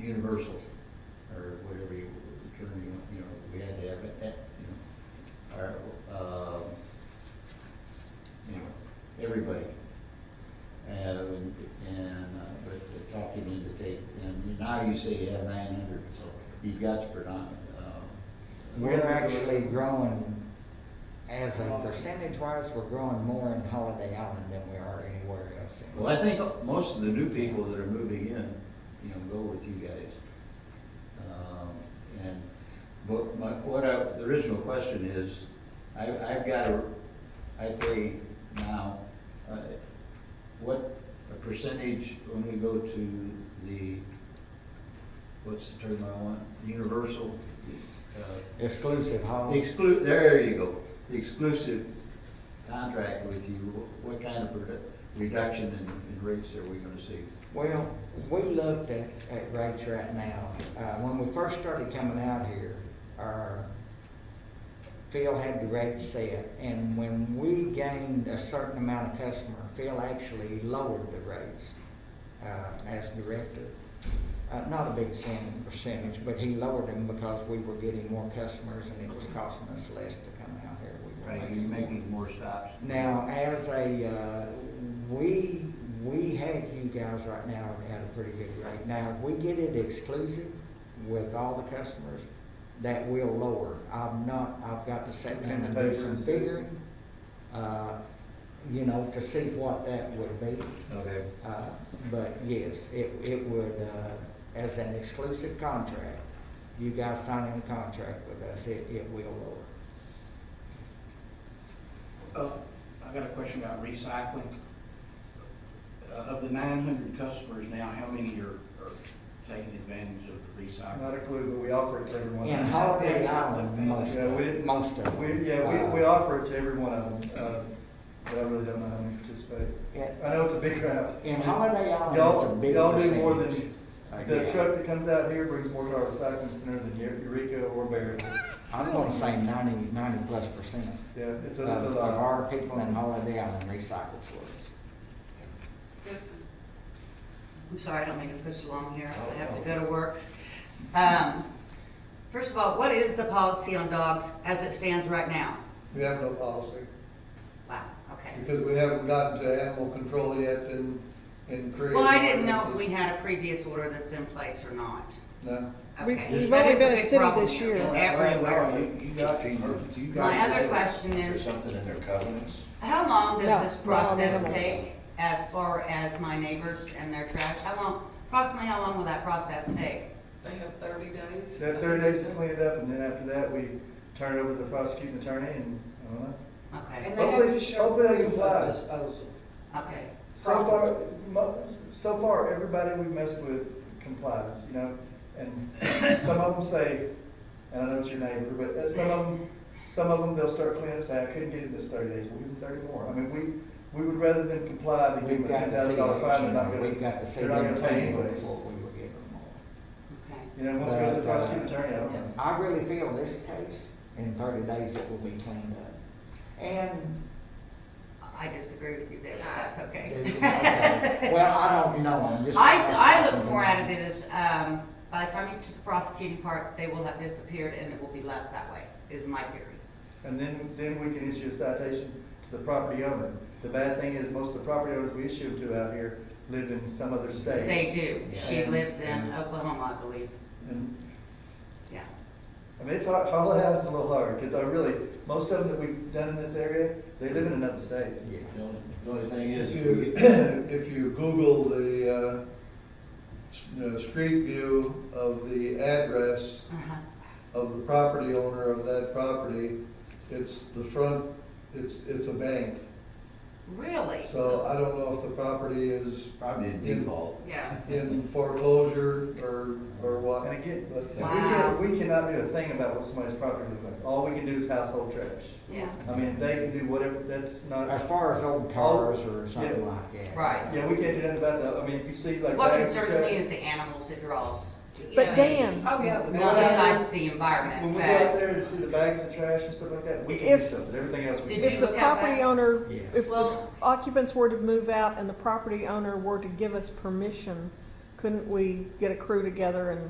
universal, or whatever you, term you, want, you know, we had to have it, that, you know, our, um, you know, everybody. And, and, uh, but talking into tape, and now you say you have nine hundred, so you've got the predominant, um. We're actually growing, as a percentage wise, we're growing more in Holiday Island than we are anywhere else. in- Well, I think most of the new people that are moving in, you know, go with you guys. Um, And, but my, what I, the original question is, I, I've got a, I pay now, uh, what a percentage when we go to the, what's the term I want, universal, uh, Exclusive holiday. Exclu, there you go, The exclusive contract with you, what kind of redu- reduction in, in rates are we gonna see? Well, we looked at, at rates right now. Uh, when we first started coming out here, our, Phil had the rate set. And when we gained a certain amount of customer, Phil actually lowered the rates, uh, as director. Uh, not a big sin- percentage, but he lowered them because we were getting more customers and it was costing us less to come out here. We were Are you making more stops? now, as a, uh, we, we have you guys right now at a pretty good rate. Now, if we get it exclusive with all the customers, that will lower. I've not, I've got to sit down and do some Invitations. figuring, uh, you know, to see what that would be. Okay, Uh, But yes, it, it would, uh, as an exclusive contract, you guys signing a contract with us, it, it will lower. Uh, I got a question about recycling. Uh, Of the nine hundred customers now, how many are, are taking advantage of the Not recycling? included, but we offer it to everyone. In Holiday Island, most Yeah, of, we didn't- most of. We, yeah, we, we offer it to every one of them, uh, but I really don't know how many participate. In- I know it's a big crowd. In Holiday Island, it's a Y'all, big y'all do more percentage. than, I the guess. truck that comes out here brings more to our recycling center than Eureka or Barrett. I'm gonna say ninety, ninety plus percent Yeah, it's of a, it's a of lot. our people in Holiday Island recycle for us. Yes, ma'am. I'm sorry, I don't mean to push along here, I have to go to work. Um, First of all, what is the policy on dogs as it stands right now? We have no policy, Wow, okay. because we haven't gotten to animal control yet and, and created. Well, I didn't know if we had a previous order that's in place or not. No, We- Okay, we've that only is been a big city problem this here, year. Everywhere. You- You got, you got. My other question There's is, something in their covenants? how long No, does this not on process animals. take as far as my neighbors and their trash? How long, approximately how long will that process take? They have thirty days. They have thirty days to clean it up, and then after that, we turn it over to the prosecuting attorney, and, I don't know. Okay, And they have Hopefully- to show hopefully they can proof fly. of disposal. okay. So far, mo- so far, everybody we messed with complies, you know, and some of them say, and I know it's your neighbor, but uh, some of them, some of them, they'll start cleaning up, say, I couldn't get it this thirty days, we'll give them thirty more. I mean, we, we would rather than comply than give We've them a got ten to thousand see dollar fine, they're not action, gonna, we've got to see they're not them gonna pay pay anyways. before we will give them more. Okay. You know, once it goes to the But, uh, prosecuting attorney, I don't know. I really feel this case, in thirty days, it will be cleaned up. And I disagree with you there, but that's okay. Well, I don't know, I'm just. I, I look more at it as, um, by the time you get to the prosecuting part, they will have disappeared and it will be left that way, is my theory. And then, then we can issue a citation to the property owner. The bad thing is, most of the property owners we issue them to out here live in some other state. They do. She Yeah. lives in Oklahoma, I believe, And yeah. I mean, it's hard, Harlan Island's a little hard, because I really, most of them that we've done in this area, they live in another state. Yeah. The only- The only thing If is, you, you if you Google the, uh, s- uh, street view of the address Uh-huh. of the property owner of that property, it's the front, it's, it's a bank. Really? So I don't know if the property is probably a default. Yeah. in foreclosure or, or what. And again, But we Wow. can, we cannot do a thing about what somebody's property looks like. All we can do is household trash. Yeah. I mean, they can do whatever, that's As not, far as old cars or something like that. Right. yeah, we can't do nothing about that. I mean, if you see like. What bags of concerns trash- me is the animals it draws, But Dan, Oh, yeah. the- Well, not I- besides the When environment, we go out but there to see the bags of trash and stuff like that, we can do If- something, everything else we Did can. if the look at property that? owner, Yeah. if the Well- occupants were to move out and the property owner were to give us permission couldn't we get a crew together and